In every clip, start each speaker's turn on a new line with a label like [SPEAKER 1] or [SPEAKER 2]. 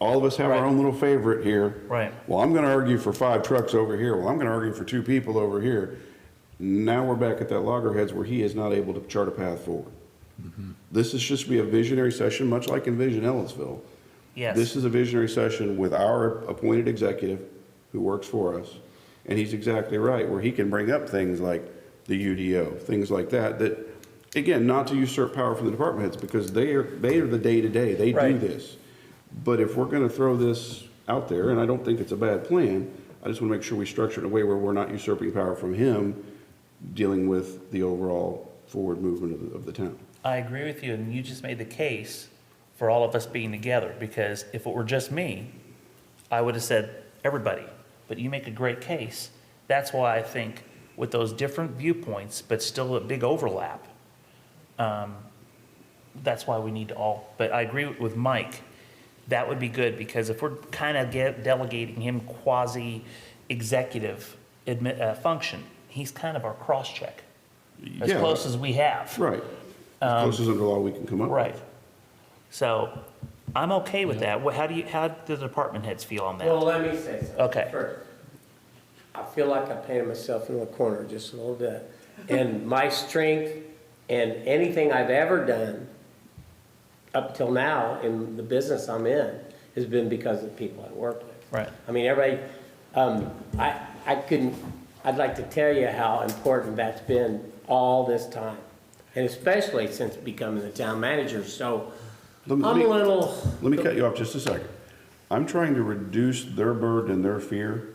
[SPEAKER 1] all of us have our own little favorite here.
[SPEAKER 2] Right.
[SPEAKER 1] Well, I'm gonna argue for five trucks over here, well, I'm gonna argue for two people over here. Now we're back at that loggerheads where he is not able to chart a path forward. This is just be a visionary session, much like Envision Ellisville.
[SPEAKER 2] Yes.
[SPEAKER 1] This is a visionary session with our appointed executive who works for us. And he's exactly right, where he can bring up things like the UDO, things like that, that, again, not to usurp power from the department heads, because they are, they are the day-to-day, they do
[SPEAKER 2] Right.
[SPEAKER 1] this. But if we're gonna throw this out there, and I don't think it's a bad plan, I just wanna make sure we structure it in a way where we're not usurping power from him, dealing with the overall forward movement of, the- of the town.
[SPEAKER 2] I agree with you, and you just made the case for all of us being together, because if it were just me, I would have said everybody, but you make a great case. That's why I think with those different viewpoints, but still a big overlap, um, that's why we need to all, but I agree with Mike. That would be good, because if we're kind of delegating him quasi-executive admi- uh, function, he's kind of our cross-check, as
[SPEAKER 1] Yeah.
[SPEAKER 2] close as we have.
[SPEAKER 1] Right. As close as under law we can come up with.
[SPEAKER 2] Um, Right. So I'm okay with that. What, how do you, how do the department heads feel on
[SPEAKER 3] Well,
[SPEAKER 2] that?
[SPEAKER 3] let me say something.
[SPEAKER 2] Okay.
[SPEAKER 3] first. I feel like I painted myself in the corner just a little bit. And my strength and anything I've ever done up till now in the business I'm in has been because of the people I work with.
[SPEAKER 2] Right.
[SPEAKER 3] I mean, everybody, um, I, I couldn't, I'd like to tell you how important that's been all this time. And especially since becoming the town manager, so
[SPEAKER 1] Let
[SPEAKER 3] I'm
[SPEAKER 1] me-
[SPEAKER 3] a
[SPEAKER 1] let me-
[SPEAKER 3] little.
[SPEAKER 1] Let me cut you off just a second. I'm trying to reduce their burden and their fear.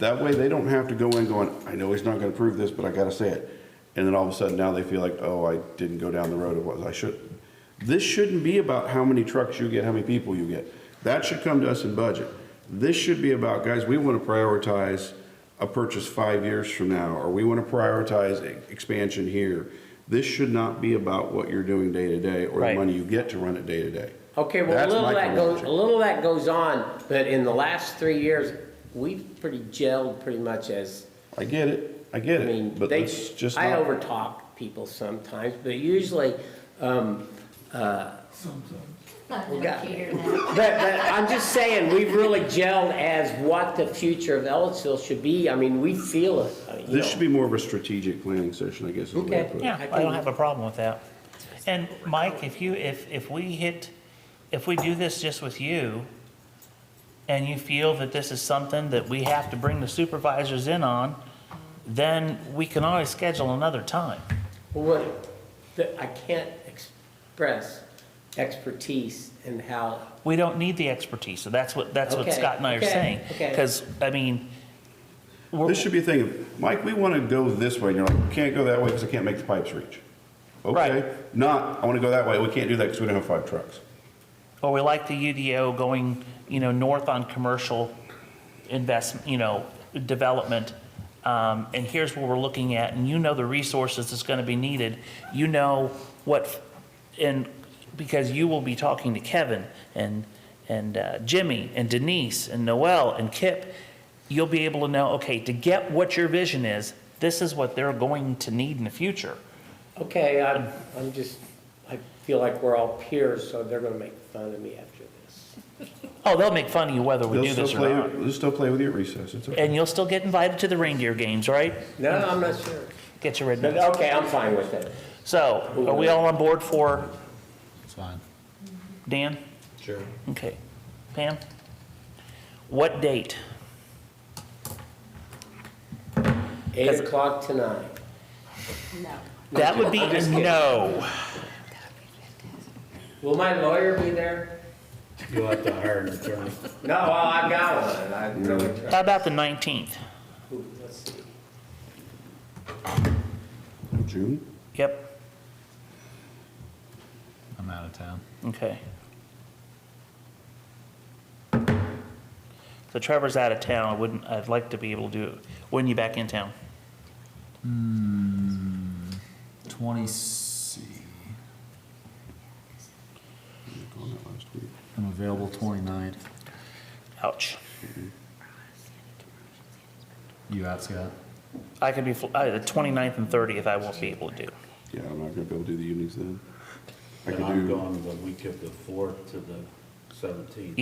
[SPEAKER 1] That way, they don't have to go in going, I know he's not gonna prove this, but I gotta say it. And then all of a sudden, now they feel like, oh, I didn't go down the road of what I should. This shouldn't be about how many trucks you get, how many people you get. That should come to us in budget. This should be about, guys, we wanna prioritize a purchase five years from now, or we wanna prioritize e- expansion here. This should not be about what you're doing day to day, or the
[SPEAKER 2] Right.
[SPEAKER 1] money you get to run it day to day.
[SPEAKER 3] Okay, well, a
[SPEAKER 1] That's
[SPEAKER 3] little of
[SPEAKER 1] my
[SPEAKER 3] that goes, a
[SPEAKER 1] conviction.
[SPEAKER 3] little of that goes on, but in the last three years, we've pretty gelled pretty much as,
[SPEAKER 1] I get it, I get
[SPEAKER 3] I mean,
[SPEAKER 1] it, but
[SPEAKER 3] they,
[SPEAKER 1] let's just
[SPEAKER 3] I
[SPEAKER 1] not.
[SPEAKER 3] overtalk people sometimes, but usually, um, uh,
[SPEAKER 4] I'd
[SPEAKER 3] We
[SPEAKER 4] like
[SPEAKER 3] got
[SPEAKER 4] to hear that.
[SPEAKER 3] but, but I'm just saying, we've really gelled as what the future of Ellisville should be. I mean, we feel it, uh, you
[SPEAKER 1] This
[SPEAKER 3] know.
[SPEAKER 1] should be more of a strategic planning session, I guess. is the way to
[SPEAKER 3] Okay.
[SPEAKER 1] put it.
[SPEAKER 2] Yeah, I don't have a problem with that. And Mike, if you, if, if we hit, if we do this just with you, and you feel that this is something that we have to bring the supervisors in on, then we can always schedule another time.
[SPEAKER 3] Well, What, the- I can't express expertise in how
[SPEAKER 2] We don't need the expertise, so that's what, that's what
[SPEAKER 3] Okay,
[SPEAKER 2] Scott and I are
[SPEAKER 3] okay,
[SPEAKER 2] saying.
[SPEAKER 3] okay.
[SPEAKER 2] Because, I mean, we're,
[SPEAKER 1] This should be a thing of, Mike, we want to go this way, and you're like, can't go that way because I can't make the pipes reach.
[SPEAKER 2] Right.
[SPEAKER 1] Okay, not, I want to go that way, we can't do that because we don't have five trucks.
[SPEAKER 2] Or we like the UDO going, you know, north on commercial investment, you know, development. Um, and here's what we're looking at, and you know the resources that's gonna be needed. You know what, and because you will be talking to Kevin and, and uh, Jimmy and Denise and Noel and Kip. You'll be able to know, okay, to get what your vision is, this is what they're going to need in the future.
[SPEAKER 3] Okay, I'm, I'm just, I feel like we're all peers, so they're gonna make fun of me after this.
[SPEAKER 2] Oh, they'll make fun of you whether we
[SPEAKER 1] They'll
[SPEAKER 2] do
[SPEAKER 1] still
[SPEAKER 2] this
[SPEAKER 1] play,
[SPEAKER 2] or not.
[SPEAKER 1] they'll still play with you at recess, it's okay.
[SPEAKER 2] And you'll still get invited to the reindeer games, right?
[SPEAKER 3] No, I'm not sure.
[SPEAKER 2] Get your red
[SPEAKER 3] But,
[SPEAKER 2] notes.
[SPEAKER 3] okay, I'm fine with it.
[SPEAKER 2] So, are we all on board for
[SPEAKER 5] It's fine.
[SPEAKER 2] Dan?
[SPEAKER 5] Sure.
[SPEAKER 2] Okay. Pam? What date?
[SPEAKER 3] Eight
[SPEAKER 2] Does-
[SPEAKER 3] o'clock tonight.
[SPEAKER 4] No.
[SPEAKER 2] That would be a no.
[SPEAKER 3] Will my lawyer be there?
[SPEAKER 5] You'll have to hire an attorney.
[SPEAKER 3] No, well, I've got one, I really try.
[SPEAKER 2] How about the 19th?
[SPEAKER 3] Ooh, Let's see.
[SPEAKER 1] June?
[SPEAKER 2] Yep,
[SPEAKER 5] I'm out of town.
[SPEAKER 2] okay. So Trevor's out of town, I wouldn't, I'd like to be able to do, it. when you back in town?
[SPEAKER 5] Hmm, Twenty C.
[SPEAKER 1] On that last week.
[SPEAKER 5] I'm available 29th.
[SPEAKER 2] Ouch.
[SPEAKER 5] You out, Scott?
[SPEAKER 2] I could be, fl- uh, the 29th and 30th I won't be able to do.
[SPEAKER 1] Yeah, I'm not gonna be able to do the evenings then. I
[SPEAKER 6] And
[SPEAKER 1] could
[SPEAKER 6] I'm
[SPEAKER 1] do.
[SPEAKER 6] gone the week of the fourth to the seventeenth.